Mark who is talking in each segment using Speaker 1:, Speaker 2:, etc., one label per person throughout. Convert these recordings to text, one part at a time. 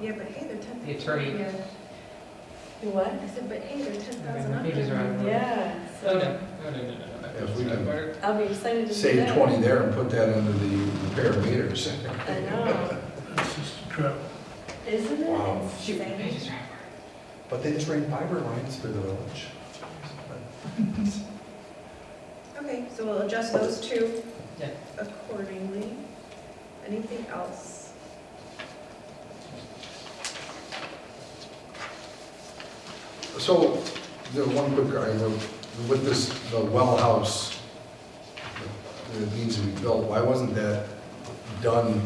Speaker 1: Yeah, but hey, they're ten.
Speaker 2: The attorney-
Speaker 1: Yeah.
Speaker 3: What?
Speaker 1: I said, but hey, they're ten thousand
Speaker 2: My pages are out of order.
Speaker 3: Yeah,
Speaker 2: Oh, no,
Speaker 3: so
Speaker 2: no, no, no, no, no.
Speaker 4: Yes, we do.
Speaker 3: I'll be excited to see
Speaker 4: Save
Speaker 3: that.
Speaker 4: 20 there and put that under the repair meters.
Speaker 3: I know,
Speaker 5: That's just a trap.
Speaker 3: isn't it?
Speaker 4: Wow.
Speaker 2: Shoot, my pages are out of order.
Speaker 4: But they just ran fiber lines through the village.
Speaker 1: Okay, so we'll adjust those two
Speaker 2: Yeah.
Speaker 1: accordingly. Anything else?
Speaker 4: So, the one quick, I wrote, with this, the well house that needs to be built, why wasn't that done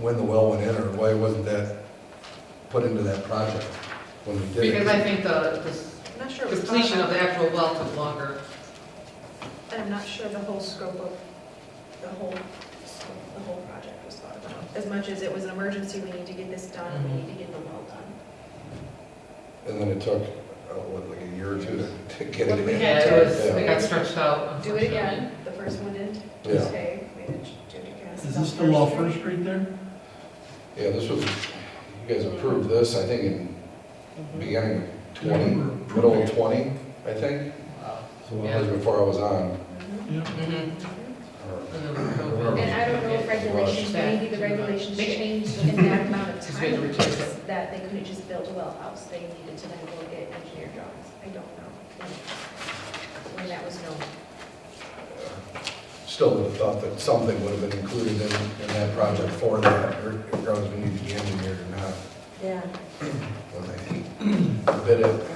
Speaker 4: when the well went in, or why wasn't that put into that project when we did it?
Speaker 2: Because I think the,
Speaker 1: I'm not sure.
Speaker 2: the
Speaker 1: it was
Speaker 2: completion of
Speaker 1: thought
Speaker 2: the actual well took longer.
Speaker 1: about, And I'm not sure the whole scope of, the whole, scope- the whole project was thought about. As much as it was an emergency, we need to get this done, we need to get the well done.
Speaker 4: And then it took, uh, what, like a year or two to- to get
Speaker 1: What
Speaker 4: it
Speaker 1: we
Speaker 4: in?
Speaker 1: had
Speaker 2: Yeah, it was, it
Speaker 4: Yeah.
Speaker 2: got stretched out.
Speaker 1: Do it again, the first one in,
Speaker 4: Yeah.
Speaker 1: okay, we did Judy Cass.
Speaker 5: Is this still off First Street there?
Speaker 4: Yeah, this was, you guys approved this, I think, in beginning of twenty, middle of twenty, I think. So that was before I was on.
Speaker 2: Mhm.
Speaker 4: or-
Speaker 5: Yeah.
Speaker 2: And then we'll-
Speaker 1: And I don't know if regulations, maybe the regulations changed in that amount of
Speaker 2: It's good to
Speaker 1: time,
Speaker 2: recheck that.
Speaker 1: that they couldn't just build a well house, they needed to then go get engineer drawings, I don't know. When that was known.
Speaker 4: uh, Still would have thought that something would have been included in, in that project for that, or regardless if we needed to be engineered or not.
Speaker 3: Yeah.
Speaker 4: But I think a bit of,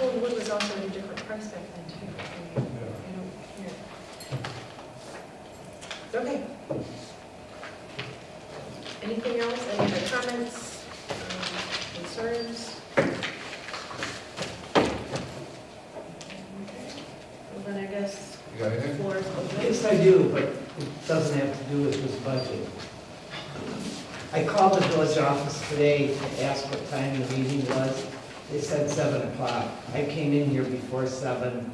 Speaker 1: Well, wood was also at a different price back then too. I mean, I don't- yeah. Okay. Anything else, any other comments, um, concerns? Okay. Well, then I guess
Speaker 4: you got anything?
Speaker 1: floor is open.
Speaker 6: Yes, I do, but it doesn't have to do with this budget. I called the village office today to ask what time the meeting was. They said seven o'clock. I came in here before seven.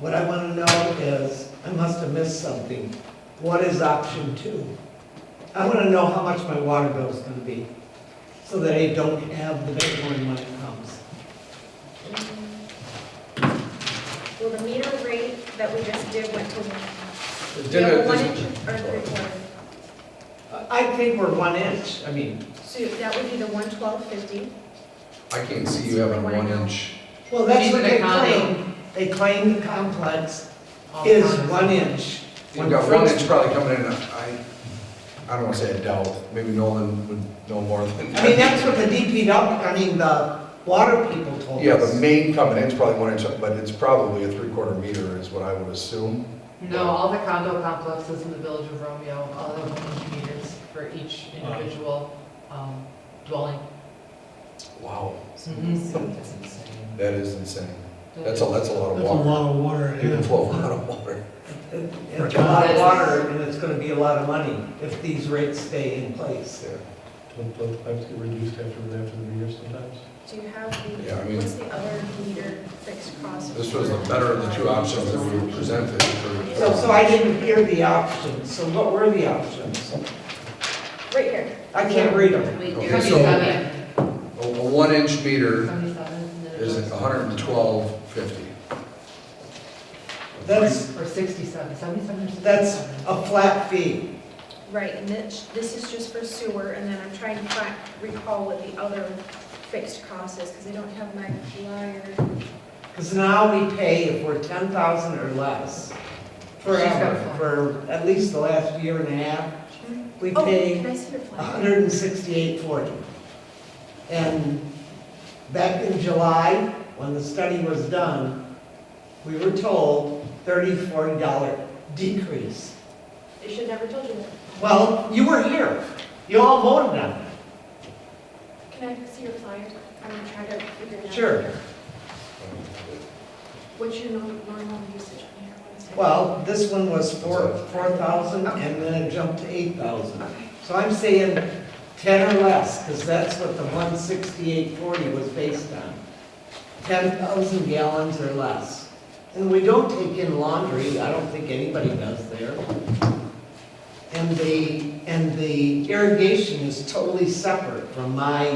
Speaker 6: What I want to know is, I must have missed something. What is option two? I want to know how much my water bill is going to be, so that I don't have the big one when it comes.
Speaker 1: Well, Um, the meter rate that we just did went to.
Speaker 4: Did it-
Speaker 1: One inch or three quarter.
Speaker 6: I think we're one inch, I mean,
Speaker 1: So that would be the one twelve fifty.
Speaker 4: I can't see you having one inch.
Speaker 6: Well, that's
Speaker 2: Even
Speaker 6: what they
Speaker 2: the condo.
Speaker 6: claim. They claim the complex
Speaker 2: All
Speaker 6: is
Speaker 2: kinds.
Speaker 6: one inch.
Speaker 4: You've got one inch probably coming in, I, I don't wanna say I doubt, maybe Nolan would know more than.
Speaker 6: I mean, that's what the DP, I mean, the water people told
Speaker 4: Yeah, the
Speaker 6: us.
Speaker 4: main coming in's probably one inch, but it's probably a three-quarter meter is what I would assume.
Speaker 2: No, all the condo complexes in the village of Romeo, all of them have meters for each individual um, dwelling.
Speaker 4: Wow.
Speaker 2: Mhm.
Speaker 4: That is insane. Mm-hmm. That's a, that's a lot of
Speaker 5: That's a
Speaker 4: water.
Speaker 5: lot of water.
Speaker 4: You can
Speaker 5: yeah.
Speaker 4: flow a lot of water.
Speaker 6: It's a lot of water, and it's gonna be a lot of money if these rates stay in place.
Speaker 7: Don't those pipes get reduced after, after the year sometimes?
Speaker 1: Do you have
Speaker 4: Yeah, I
Speaker 1: the,
Speaker 4: mean-
Speaker 1: what's the other meter fixed cost?
Speaker 4: This was the better of the two options that we were presented. for-
Speaker 6: So, so I didn't hear the options, so what were the options?
Speaker 1: Right here.
Speaker 6: I can't read them.
Speaker 4: Okay, so a
Speaker 2: Seventy-seven,
Speaker 4: a one-inch meter
Speaker 2: seventy-seven.
Speaker 4: is hundred and twelve fifty.
Speaker 6: That's,
Speaker 2: Or sixty-seven, seventy-seven or sixty-seven.
Speaker 6: that's a flat fee.
Speaker 1: Right, and this, this is just for sewer, and then I'm trying to fi- recall what the other fixed cost is, because I don't have my flyer.
Speaker 6: Because now we pay if we're ten thousand or less forever, for at least the last year and a half, we
Speaker 1: Oh,
Speaker 6: pay
Speaker 1: can I see your
Speaker 6: a
Speaker 1: flyer?
Speaker 6: hundred and sixty-eight forty. And back in July, when the study was done, we were told thirty, forty dollar decrease.
Speaker 1: They should never told you that.
Speaker 6: Well, you were here, you all voted on it.
Speaker 1: Can I see your flyer? I'm gonna try to figure it out.
Speaker 6: Sure.
Speaker 1: What's your nor- normal usage on here? One second.
Speaker 6: Well, this one was four, four thousand, and then it jumped to eight thousand.
Speaker 1: Okay.
Speaker 6: So I'm saying ten or less, because that's what the one sixty-eight forty was based on. Ten thousand gallons or less. And we don't take in laundry, I don't think anybody does there. And the, and the irrigation is totally separate from my